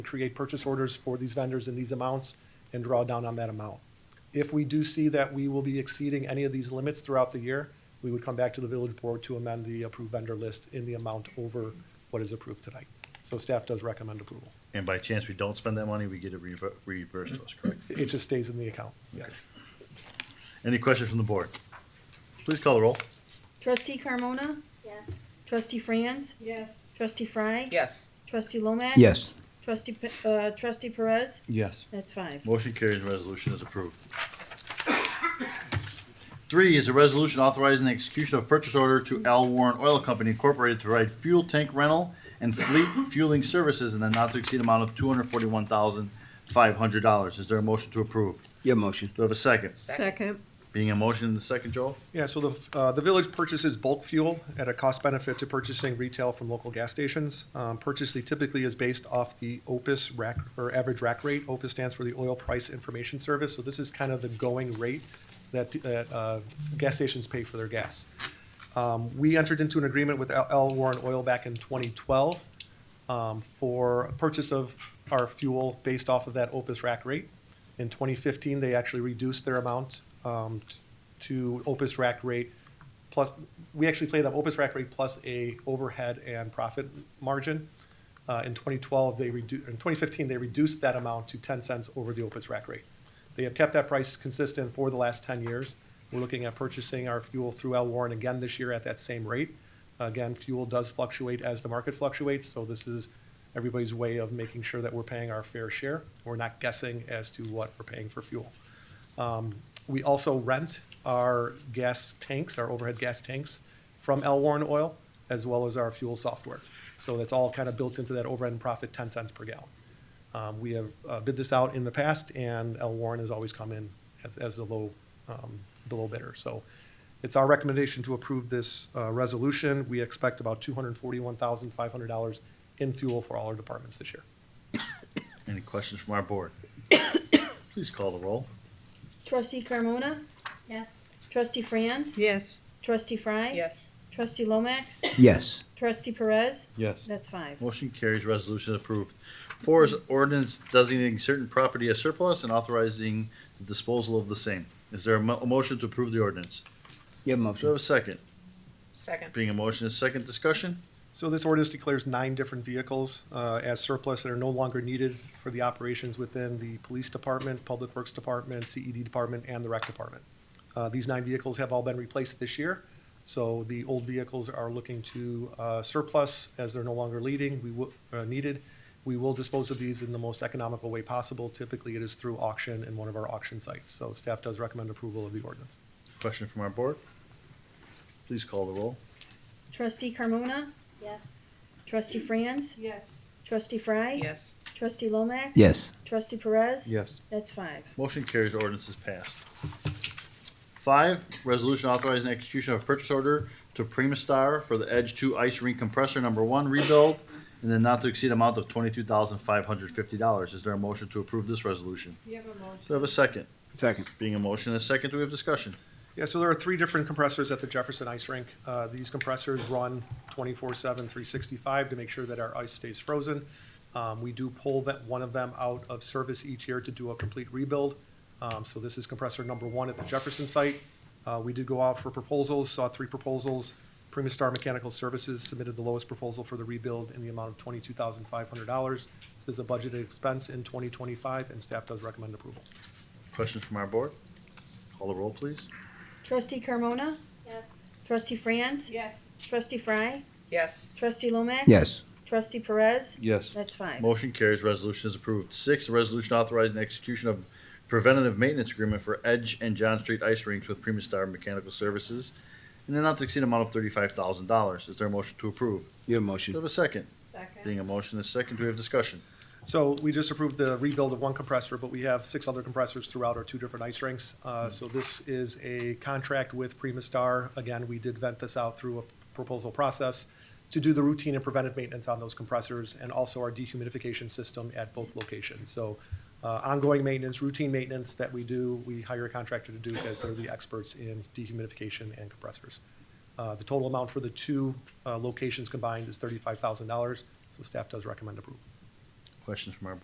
create purchase orders for these vendors in these amounts and draw down on that amount. If we do see that we will be exceeding any of these limits throughout the year, we would come back to the village board to amend the approved vendor list in the amount over what is approved tonight. So staff does recommend approval. And by chance we don't spend that money, we get it rever- reimbursed to us, correct? It just stays in the account. Yes. Any questions from the board? Please call the roll. Trustee Carmona? Yes. Trustee Franz? Yes. Trustee Fry? Yes. Trustee Lomax? Yes. Trustee, Pe- uh, Trustee Perez? Yes. That's five. Motion carries and resolution is approved. Three is a resolution authorizing the execution of purchase order to Al Warren Oil Company Incorporated to provide fuel tank rental and fleet fueling services in a not to exceed amount of two hundred forty-one thousand five hundred dollars. Is there a motion to approve? Your motion. Do I have a second? Second. Being a motion in the second, Joel? Yeah, so the, uh, the village purchases bulk fuel at a cost benefit to purchasing retail from local gas stations. Um, purchase fee typically is based off the OPIS rack, or average rack rate. OPIS stands for the Oil Price Information Service, so this is kind of the going rate that, that, uh, gas stations pay for their gas. Um, we entered into an agreement with L. L. Warren Oil back in twenty twelve, um, for purchase of our fuel based off of that Opus rack rate. In 2015, they actually reduced their amount um, t- to Opus rack rate plus, we actually pay them Opus rack rate plus a overhead and profit margin. Uh, In 2012, they reduced, in 2015, they reduced that amount to 10 cents over the Opus rack rate. They have kept that price consistent for the last 10 years. We're looking at purchasing our fuel through El Warren again this year at that same rate. Again, fuel does fluctuate as the market fluctuates, so this is everybody's way of making sure that we're paying our fair share. We're not guessing as to what we're paying for fuel. Um, We also rent our gas tanks, our overhead gas tanks, from L. Warren Oil, as well as our fuel software. So that's all kind of built into that overhead and profit, ten cents per gallon. Um, We have uh, bid this out in the past, and L. Warren has always come in as, as the low, um, the low bidder. So it's our recommendation to approve this uh, resolution. We expect about two hundred and forty-one thousand, five hundred dollars in fuel for all our departments this year. Any questions from our board? Please call the roll. Trustee Carmona? Yes. Trustee Franz? Yes. Trustee Fry? Yes. Trustee Lomax? Yes. Trustee Perez? Yes. That's five. Motion carries, resolution approved. Four is ordinance designating certain property as surplus and authorizing the disposal of the same. Is there a mo- a motion to approve the ordinance? Your Do I have motion. a second? Second. Being a motion, a second discussion? So this ordinance declares nine different vehicles uh, as surplus that are no longer needed for the operations within the police department, public works department, CED department, and the rec department. Uh, These nine vehicles have all been replaced this year, so the old vehicles are looking to uh, surplus as they're no longer leading, we will, uh, needed. We will dispose of these in the most economical way possible. Typically, it is through auction in one of our auction sites. So staff does recommend approval of the ordinance. Question from our board? Please call the roll. Trustee Carmona? Yes. Trustee Franz? Yes. Trustee Fry? Yes. Trustee Lomax? Yes. Trustee Perez? Yes. That's five. Motion carries, ordinance is passed. Five, resolution authorizing execution of purchase order to Primastar for the Edge Two Ice Rink Compressor Number One rebuild in the not to exceed amount of twenty-two thousand five hundred fifty dollars. Is there a motion to approve this resolution? You have a motion. Do I have a second? Second. Being a motion and a second, do we have discussion? Yeah, so there are three different compressors at the Jefferson Ice Rink. Uh, These compressors run 24/7, 365 to make sure that our ice stays frozen. Um, We do pull that, one of them out of service each year to do a complete rebuild. Um, So this is compressor number one at the Jefferson site. Uh, We did go out for proposals, saw three proposals. Primastar Mechanical Services submitted the lowest proposal for the rebuild in the amount of $22,500. This is a budgeted expense in 2025, and staff does recommend approval. Questions from our board? Call the roll, please. Trustee Carmona? Yes. Trustee Franz? Yes. Trustee Fry? Yes. Trustee Lomax? Yes. Trustee Perez? Yes. That's five. Motion carries, resolution is approved. Six, a resolution authorizing execution of preventative maintenance agreement for Edge and John Street Ice Rinks with Primastar Mechanical Services in the not to exceed amount of thirty-five thousand dollars. Is there a motion to approve? Your Do I motion. have a second? Second. Being a motion and a second, do we have discussion? So we just approved the rebuild of one compressor, but we have six other compressors throughout our two different ice rinks. Uh, So this is a contract with Primastar. Again, we did vent this out through a proposal process to do the routine and preventive maintenance on those compressors and also our dehumidification system at both locations. So uh, ongoing maintenance, routine maintenance that we do, we hire a contractor to do because they're the experts in dehumidification and compressors. Uh, The total amount for the two uh, locations combined is thirty-five thousand dollars, so staff does recommend approval. Questions from our board?